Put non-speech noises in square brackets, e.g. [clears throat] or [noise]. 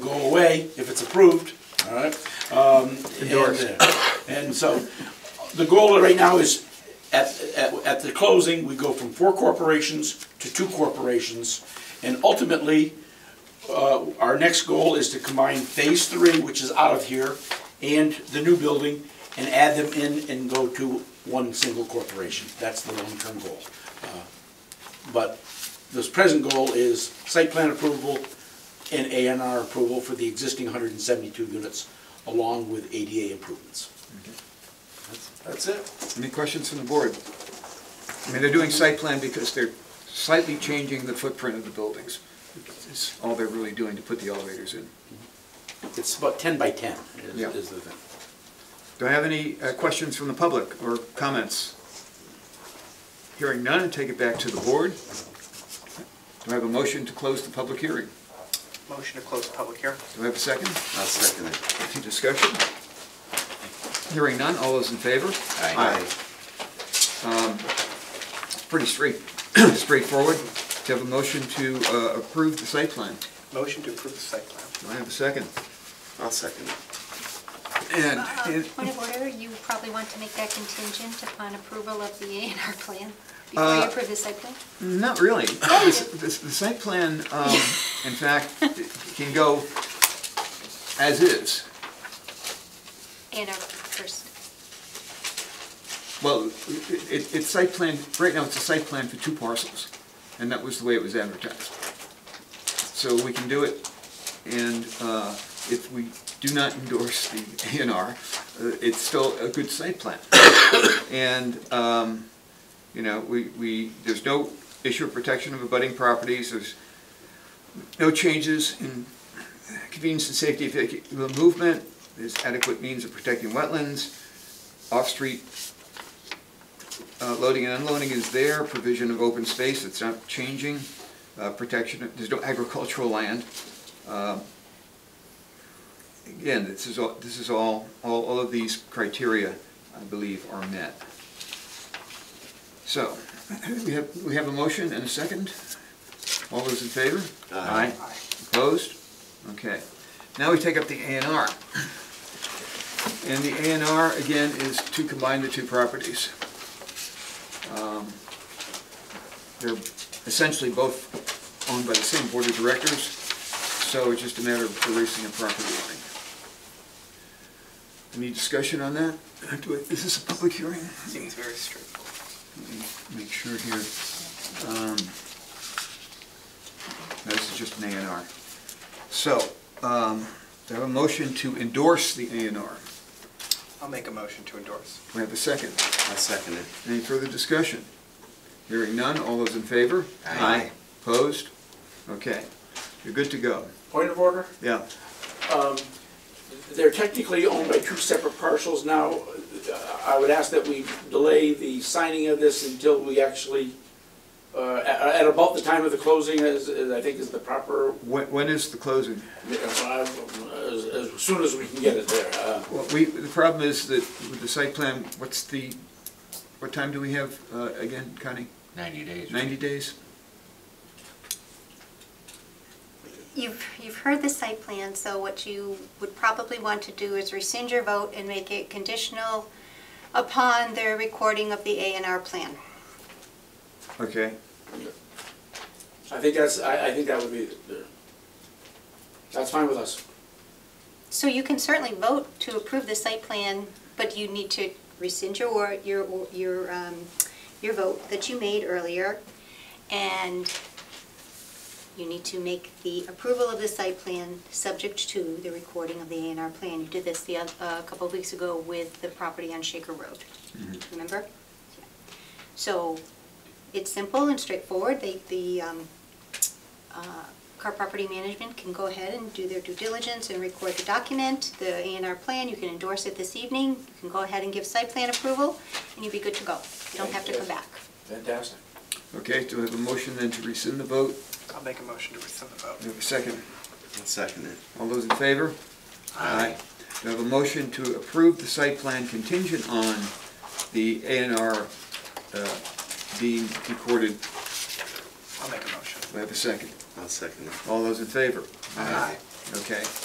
way, if it's approved, all right? um, Endorsed. and, uh, And so, the goal right now is, at, at, at the closing, we go from four corporations to two corporations. And ultimately, uh, our next goal is to combine Phase Three, which is out of here, and the new building, and add them in and go to one single corporation. That's the long-term goal. Uh, But this present goal is site plan approval and A and R approval for the existing 172 units, along with ADA improvements. That's it. Any questions from the board? I mean, they're doing site plan because they're slightly changing the footprint of the buildings. It's all they're really doing to put the elevators in. It's about 10 by 10 is- Yeah. is the thing. Do I have any uh, questions from the public or comments? Hearing none, take it back to the board. Do I have a motion to close the public hearing? Motion to close the public hearing. Do I have a second? I'll second it. Any discussion? Hearing none, all those in favor? Um, Aye. It's Pretty straight, [clears throat] straightforward. Do you have a motion to uh, approve the site plan? Motion to approve the site plan. Do I have a second? I'll second it. And, Uh, Point of order, you probably want to make that contingent upon approval of the A and R plan before you Uh, approve the site plan? not really. This- this- The site plan, um, in fact, it can go as is. A and R first. Well, it- it- it's site plan, right now it's a site plan for two parcels, and that was the way it was advertised. So we can do it, and uh, if we do not endorse the A and R, uh, it's still a good site plan. And, um, you know, we, we, there's no issue of protection of abutting properties, there's no changes in convenience and safety of vehicular movement, there's adequate means of protecting wetlands, off-street uh, Loading and unloading is there, provision of open space, it's not changing, uh, protection, there's no agricultural land. Um, Again, this is all, this is all, all all of these criteria, I believe, are met. So, [clears throat] we have, we have a motion and a second. All those in favor? Aye. Opposed? Okay. Now we take up the A and R. And the A and R, again, is to combine the two properties. Um, They're essentially both owned by the same board of directors, so it's just a matter of erasing a property line. Any discussion on that? Do I- Is this a public hearing? Seems very straightforward. Make sure here. Um, no, This is just an A and R. So, um, do I have a motion to endorse the A and R? I'll make a motion to endorse. We have a second. I'll second it. Any further discussion? Hearing none, all those in favor? Aye. Opposed? Okay, you're good to go. Point of order? Yeah, They're technically owned by two separate parcels now. Uh, I would ask that we delay the signing of this until we actually, uh, at at about the time of the closing, as as I think is the proper, when, when is the closing? uh, as as soon as we can get it there. Uh, Well, we, the problem is that with the site plan, what's the, what time do we have, uh, again, Connie? 90 days. Ninety days? You've, you've heard the site plan, so what you would probably want to do is rescind your vote and make it conditional upon their recording of the A and R plan. Okay, I think that's, I I think that would be, the- that's fine with us. So you can certainly vote to approve the site plan, but you need to rescind your, wor- your, your, um, your vote that you made earlier. And you need to make the approval of the site plan subject to the recording of the A and R plan. You did this the, oth- uh, a couple of weeks ago with the property on Shaker Road, remember? So it's simple and straightforward. They, the, um, uh, Car Property Management can go ahead and do their due diligence and record the document, the A and R plan, you can endorse it this evening, you can go ahead and give site plan approval, and you'll be good to go. You don't have to come back. Fantastic. okay, do I have a motion then to rescind the vote? I'll make a motion to rescind the Do I vote. have a second? I'll second it. All those in favor? Aye. Do I have a motion to approve the site plan contingent on the A and R uh, being recorded? I'll make a motion. Do I have a second? I'll second it. All those in favor? Aye. Okay.